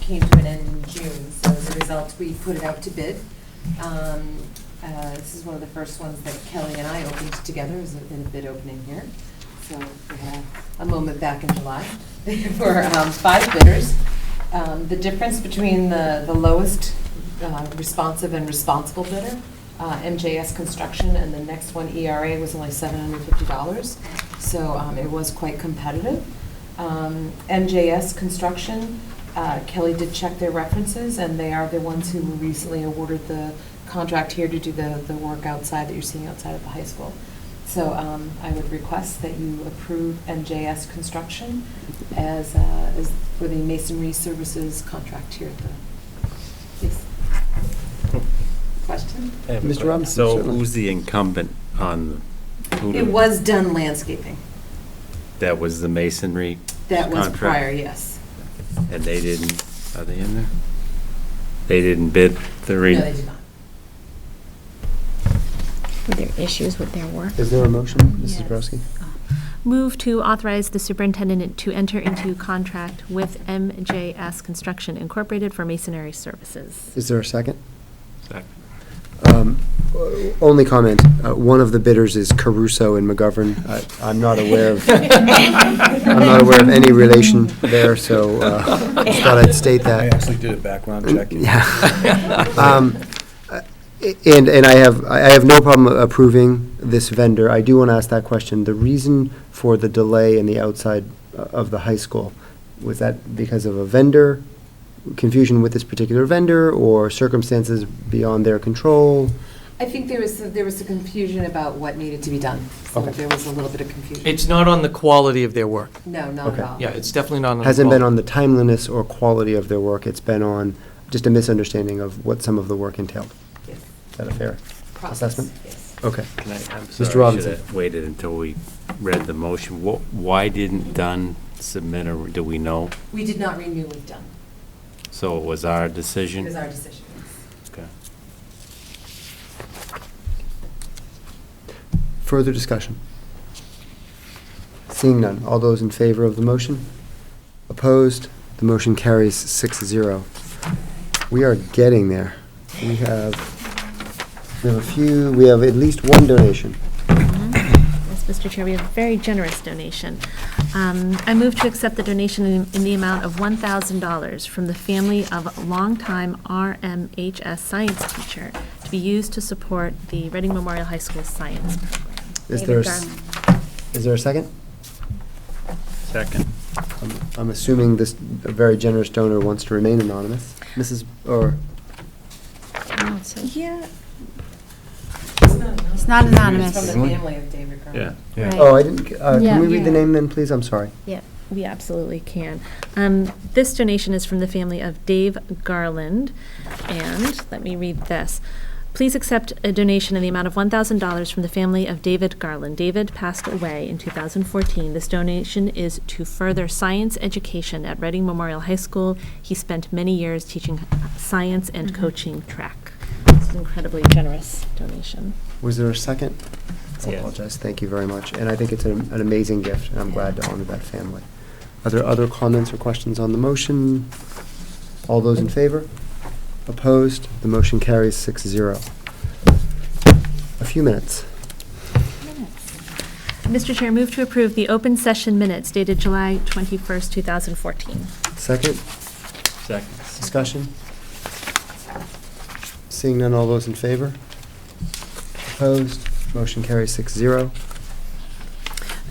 came to an end in June, so as a result, we put it out to bid. Um, uh, This is one of the first ones that Kelly and I opened together, it was a in a bid opening here. So we had a moment back in July for um, five bidders. Um, The difference between the the lowest uh, responsive and responsible bidder, uh, MJS Construction, and the next one, ERA, was only $750. So um, it was quite competitive. Um, MJS Construction, uh, Kelly did check their references, and they are the ones who were recently awarded the contract here to do the, the work outside that you're seeing outside of the high school. So um, I would request that you approve MJS Construction as, uh, as for the masonry services contract here at the, yes. Question? I have Mr. a question. Robinson, So certainly. who's the incumbent on, the- who It did- was done landscaping. that was the masonry? That was Contract. prior, yes. And they didn't, are they in there? They didn't bid the re? No, they did not. Were there issues with their work? Is there a motion, Mrs. Bobrowski? Move to authorize the superintendent to enter into contract with MJS Construction Incorporated for masonry services. Is there a second? Second. Um, o- Only comment, uh, one of the bidders is Caruso and McGovern. I- I'm not aware of, I'm not aware of any relation there, so uh, just thought I'd state I that. actually did a background check. Mm, Yeah. Um, uh, And, and I have, I I have no problem approving this vendor. I do want to ask that question. The reason for the delay in the outside uh, of the high school, was that because of a vendor, confusion with this particular vendor, or circumstances beyond their control? I think there was, there was a confusion about what needed to be done. So Okay. there was a little bit of confusion. It's not on the quality of their work. No, not at Okay. all. Yeah, it's definitely not on the Hasn't been on quality. the timeliness or quality of their work, it's been on just a misunderstanding of what some of the work entailed. Yes. Is that a fair Process, assessment? yes. Okay. Can I, I'm Mr. sorry, I should Robinson. have waited until we read the motion. Wh- Why didn't Dunn submit, or do we know? We did not renew with Dunn. So it was our It decision? was our decision. Okay. Further discussion? Seeing none, all those in favor of the motion? Opposed? The motion carries six zero. We are getting there. We have, we have a few, we have at least one donation. Yes, Mr. Chair, we have a very generous donation. Um, I move to accept the donation in in the amount of $1,000 from the family of longtime RMHS science teacher to be used to support the Reading Memorial High School science program. Is David there, a s- Garland. is there a second? Second. I'm- I'm assuming this very generous donor wants to remain anonymous. Mrs., or, Oh, it says- Yeah. It's It's not From the anonymous. family of David Cronin. Yeah. Right. oh, I didn't, uh, Yeah. can we read the Yeah. name then, please? I'm sorry. Yeah, we absolutely can. Um, This donation is from the family of Dave Garland, and let me read this. Please accept a donation in the amount of $1,000 from the family of David Garland. David passed away in 2014. This donation is to further science education at Reading Memorial High School. He spent many years teaching science and Mhm. coaching track. It's an incredibly generous donation. Was there a second? I Yes. apologize, thank you very much, and I think it's an an amazing gift, and I'm glad to honor that family. Are there other comments or questions on the motion? All those in favor? Opposed? The motion carries six zero. A few minutes. Mr. Chair, move to approve the open session minutes dated July 21st, 2014. Second, Second. discussion? Seeing none, all those in favor? Opposed? Motion carries six zero.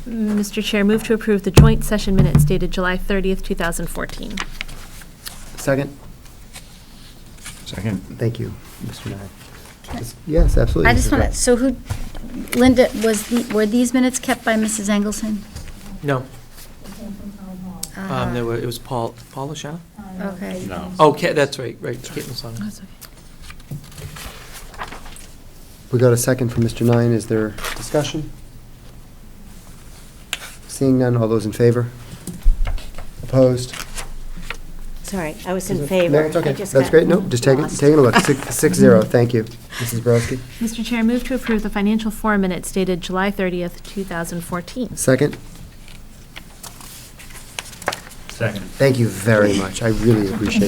Mr. Chair, move to approve the joint session minutes dated July 30th, 2014. Second, Second. thank you, Mr. Nye. Yes, absolutely. I just Mrs. want to, Rob. so who, Linda, was, the were these minutes kept by Mrs. Engelson? No, Ah, Uh-huh. um, there were, it was Paul, Paula Shaw? Okay. No. Oh, Ca- that's right, right, Kate was on it. We got a second from Mr. Nine. Is there discussion? Seeing none, all those in favor? Opposed? Sorry, I was No, in favor. it's okay. I just That's got great. No, just taking, lost. taking a look. Six, six zero. Thank you. Mrs. Borowski. Mr. Chair, move to approve the financial forum minutes dated July 30th, 2014. Second? Second. Thank you very much. I really appreciate it.